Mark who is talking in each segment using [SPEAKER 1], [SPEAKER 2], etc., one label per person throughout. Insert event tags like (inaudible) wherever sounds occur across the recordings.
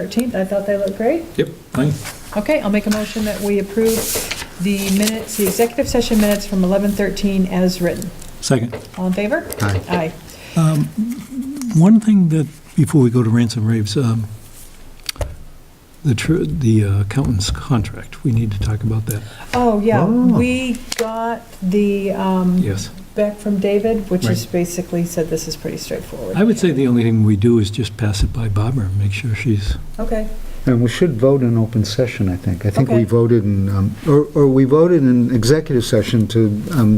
[SPEAKER 1] 13th. I thought they looked great.
[SPEAKER 2] Yep, fine.
[SPEAKER 1] Okay, I'll make a motion that we approve the minutes, the executive session minutes from 11:13 as written.
[SPEAKER 2] Second. Um,
[SPEAKER 1] All in favor?
[SPEAKER 3] Aye.
[SPEAKER 1] Aye.
[SPEAKER 2] One thing that, before we go to rants and raves, um, the tr- the uh, accountant's contract, we need to talk about that.
[SPEAKER 1] Oh, yeah,
[SPEAKER 3] Oh.
[SPEAKER 1] we got the, um,
[SPEAKER 2] Yes.
[SPEAKER 1] back from David, which is
[SPEAKER 3] Right.
[SPEAKER 1] basically said this is pretty straightforward.
[SPEAKER 2] I would say the only thing we do is just pass it by Barbara and make sure she's,
[SPEAKER 1] Okay,
[SPEAKER 3] And we should vote in open session, I think. I think
[SPEAKER 1] Okay.
[SPEAKER 3] we voted in, um, or or we voted in executive session to um,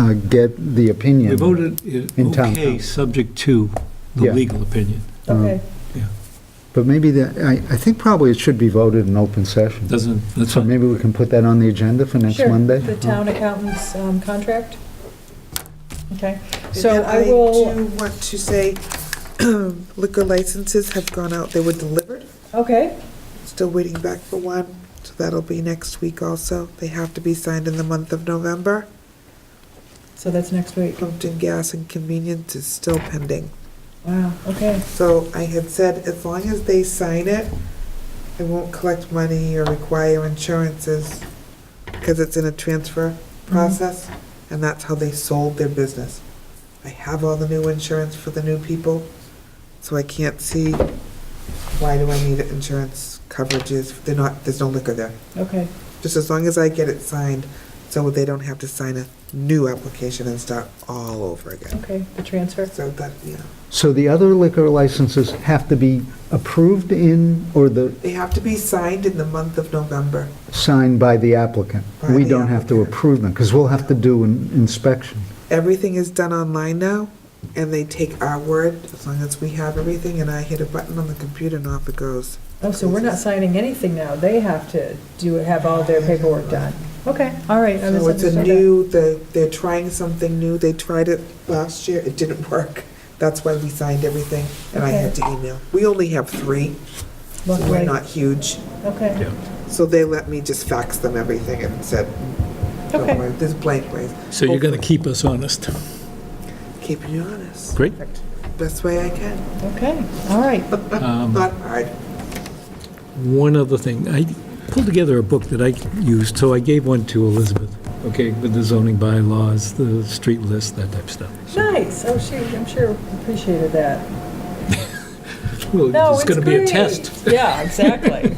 [SPEAKER 3] uh, get the opinion.
[SPEAKER 2] we voted it
[SPEAKER 3] In town
[SPEAKER 2] okay,
[SPEAKER 3] council.
[SPEAKER 2] subject to the
[SPEAKER 3] Yeah.
[SPEAKER 2] legal opinion.
[SPEAKER 3] Uh,
[SPEAKER 1] okay.
[SPEAKER 3] But maybe that, I I think probably it should be voted in open session.
[SPEAKER 2] Doesn't, that's
[SPEAKER 3] So
[SPEAKER 2] fine.
[SPEAKER 3] maybe we can put that on the agenda for next
[SPEAKER 1] Sure,
[SPEAKER 3] Monday?
[SPEAKER 1] The town accountant's um, contract? Okay, so
[SPEAKER 4] And
[SPEAKER 1] I will,
[SPEAKER 4] do want to say (clears throat) liquor licenses have gone out, they were delivered,
[SPEAKER 1] okay,
[SPEAKER 4] still waiting back for one, so that'll be next week also. They have to be signed in the month of November.
[SPEAKER 1] so that's next week.
[SPEAKER 4] Pumpkin gas and convenience is still pending.
[SPEAKER 1] Wow, okay,
[SPEAKER 4] So I had said, as long as they sign it, I won't collect money or require insurances, because it's in a transfer process, and that's how they sold their business. I have all the new insurance for the new people, so I can't see why do I need insurance coverages, they're not, there's no liquor there.
[SPEAKER 1] okay,
[SPEAKER 4] Just as long as I get it signed, so they don't have to sign a new application and start all over again.
[SPEAKER 1] okay, the transfer.
[SPEAKER 4] So that, you know,
[SPEAKER 3] So the other liquor licenses have to be approved in, or the,
[SPEAKER 4] they have to be signed in the month of November.
[SPEAKER 3] signed by the applicant?
[SPEAKER 4] By
[SPEAKER 3] We
[SPEAKER 4] the
[SPEAKER 3] don't have to
[SPEAKER 4] applicant.
[SPEAKER 3] approve them, because we'll have to do an inspection.
[SPEAKER 4] everything is done online now, and they take our word, as long as we have everything, and I hit a button on the computer and off it goes.
[SPEAKER 1] Oh, so we're not signing anything now, they have to do, have all their paperwork done. Okay, all right. I
[SPEAKER 4] So it's a
[SPEAKER 1] misunderstood that.
[SPEAKER 4] new, they're, they're trying something new, they tried it last year, it didn't (laughs) work. That's why we signed everything, and I had to email. We only have three, so
[SPEAKER 1] Look,
[SPEAKER 4] we're
[SPEAKER 1] right.
[SPEAKER 4] not huge,
[SPEAKER 1] Okay,
[SPEAKER 4] so they let me just fax them everything and said,
[SPEAKER 1] Okay.
[SPEAKER 4] don't worry, there's blank ways.
[SPEAKER 2] So you're going to keep us honest.
[SPEAKER 4] Keeping you honest,
[SPEAKER 2] Great.
[SPEAKER 4] best way I can,
[SPEAKER 1] okay, all right.
[SPEAKER 4] not hard.
[SPEAKER 2] One other thing, I pulled together a book that I used, so I gave one to Elizabeth, okay, with the zoning bylaws, the street list, that type of stuff.
[SPEAKER 1] Nice, oh, she, I'm sure appreciated that.
[SPEAKER 2] Well,
[SPEAKER 1] No,
[SPEAKER 2] it's going to be a
[SPEAKER 1] great.
[SPEAKER 2] test.
[SPEAKER 1] Yeah,
[SPEAKER 3] (laughs)
[SPEAKER 1] exactly.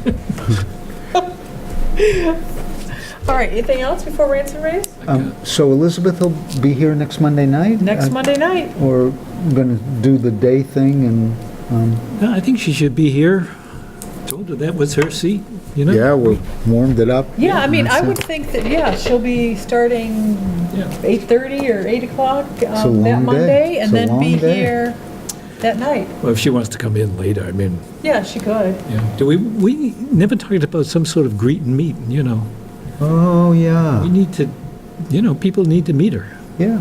[SPEAKER 1] All right, anything else before rants and raves?
[SPEAKER 3] Um, So Elizabeth will be here next Monday night?
[SPEAKER 1] Next
[SPEAKER 3] Uh,
[SPEAKER 1] Monday night,
[SPEAKER 3] Or going to do the day thing and, um,
[SPEAKER 2] No, I think she should be here. Told her that was her seat, you know?
[SPEAKER 3] yeah, we warmed it up.
[SPEAKER 1] Yeah, I mean, I
[SPEAKER 3] That's it.
[SPEAKER 1] would think that, yeah, she'll be starting
[SPEAKER 2] Yeah.
[SPEAKER 1] 8:30 or 8 o'clock
[SPEAKER 3] a
[SPEAKER 1] um, that
[SPEAKER 3] long day.
[SPEAKER 1] Monday,
[SPEAKER 3] It's
[SPEAKER 1] and
[SPEAKER 3] a
[SPEAKER 1] then be
[SPEAKER 3] long day.
[SPEAKER 1] here that night.
[SPEAKER 2] Well, if she wants to come in later, I mean,
[SPEAKER 1] Yeah, she could.
[SPEAKER 2] yeah. Do we, we never talked about some sort of greet and meet, you know?
[SPEAKER 3] Oh,
[SPEAKER 2] We
[SPEAKER 3] yeah,
[SPEAKER 2] need to, you know, people need to meet her.
[SPEAKER 3] yeah.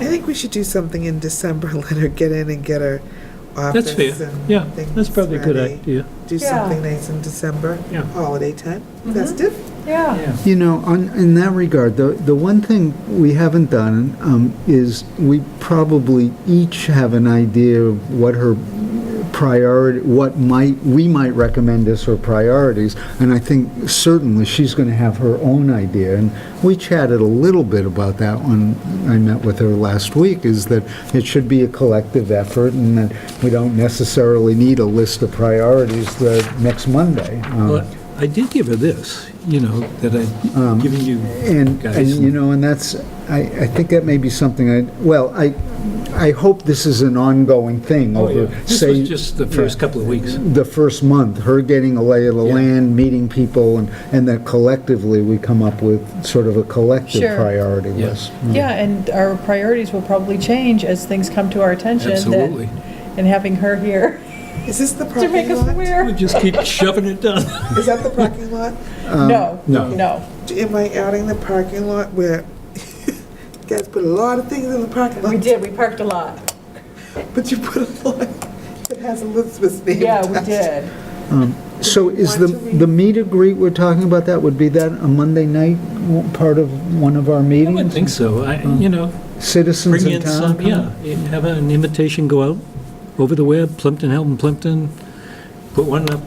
[SPEAKER 4] I think we should do something in December, (laughs) let her get in and get her
[SPEAKER 2] That's
[SPEAKER 4] office
[SPEAKER 2] fair.
[SPEAKER 4] and
[SPEAKER 2] Yeah,
[SPEAKER 4] things
[SPEAKER 2] that's probably a good
[SPEAKER 4] ready.
[SPEAKER 2] idea.
[SPEAKER 4] Do
[SPEAKER 1] Yeah. Mm-hmm.
[SPEAKER 4] something nice in December,
[SPEAKER 2] Yeah.
[SPEAKER 4] holiday time, festive.
[SPEAKER 1] Yeah.
[SPEAKER 2] Yeah.
[SPEAKER 3] You know, on, in that regard, the, the one thing we haven't done um, is we probably each have an idea of what her priority, what might, we might recommend as her priorities. And I think certainly she's going to have her own idea. And we chatted a little bit about that when I met with her last week, is that it should be a collective effort and that we don't necessarily need a list of priorities the next Monday. Um,
[SPEAKER 2] Well, I did give her this, you know, that I'd given you
[SPEAKER 3] Um, and, and,
[SPEAKER 2] guys.
[SPEAKER 3] you know, and that's, I, I think that may be something I, well, I, I hope this is an ongoing thing
[SPEAKER 2] Oh, yeah.
[SPEAKER 3] over,
[SPEAKER 2] This was
[SPEAKER 3] say,
[SPEAKER 2] just the first couple of weeks.
[SPEAKER 3] the first month, her getting a lay of the
[SPEAKER 2] Yeah.
[SPEAKER 3] land, meeting people, and, and that collectively we come up with sort of a collective
[SPEAKER 1] Sure.
[SPEAKER 3] priority
[SPEAKER 2] Yeah.
[SPEAKER 3] list.
[SPEAKER 1] Yeah, and our priorities will probably change as things come to our attention. that-
[SPEAKER 2] Absolutely.
[SPEAKER 1] And having her here (laughs)
[SPEAKER 4] Is this the
[SPEAKER 1] to
[SPEAKER 4] parking
[SPEAKER 1] make us
[SPEAKER 4] lot?
[SPEAKER 2] We
[SPEAKER 1] aware.
[SPEAKER 2] just keep shoving it down.
[SPEAKER 4] Is that the parking lot?
[SPEAKER 1] No,
[SPEAKER 2] Um, no.
[SPEAKER 1] no.
[SPEAKER 4] Am I adding the parking lot where (laughs) you guys put a lot of things in the parking lot?
[SPEAKER 1] We did, we parked a lot.
[SPEAKER 4] But you put a lot (laughs) that has Elizabeth's name.
[SPEAKER 1] Yeah,
[SPEAKER 4] (laughs)
[SPEAKER 1] we
[SPEAKER 4] attached.
[SPEAKER 1] did.
[SPEAKER 3] So is
[SPEAKER 4] want
[SPEAKER 3] the,
[SPEAKER 4] to read-
[SPEAKER 3] the meet and greet we're talking about, that would be that a Monday night, w- part of one of our
[SPEAKER 2] I wouldn't
[SPEAKER 3] meetings?
[SPEAKER 2] think so. I,
[SPEAKER 3] Uh-huh.
[SPEAKER 2] you know,
[SPEAKER 3] Citizens
[SPEAKER 2] bring in
[SPEAKER 3] in town?
[SPEAKER 2] some, yeah, have an invitation go out over the web, Plimpton, Helton, Plimpton, put one up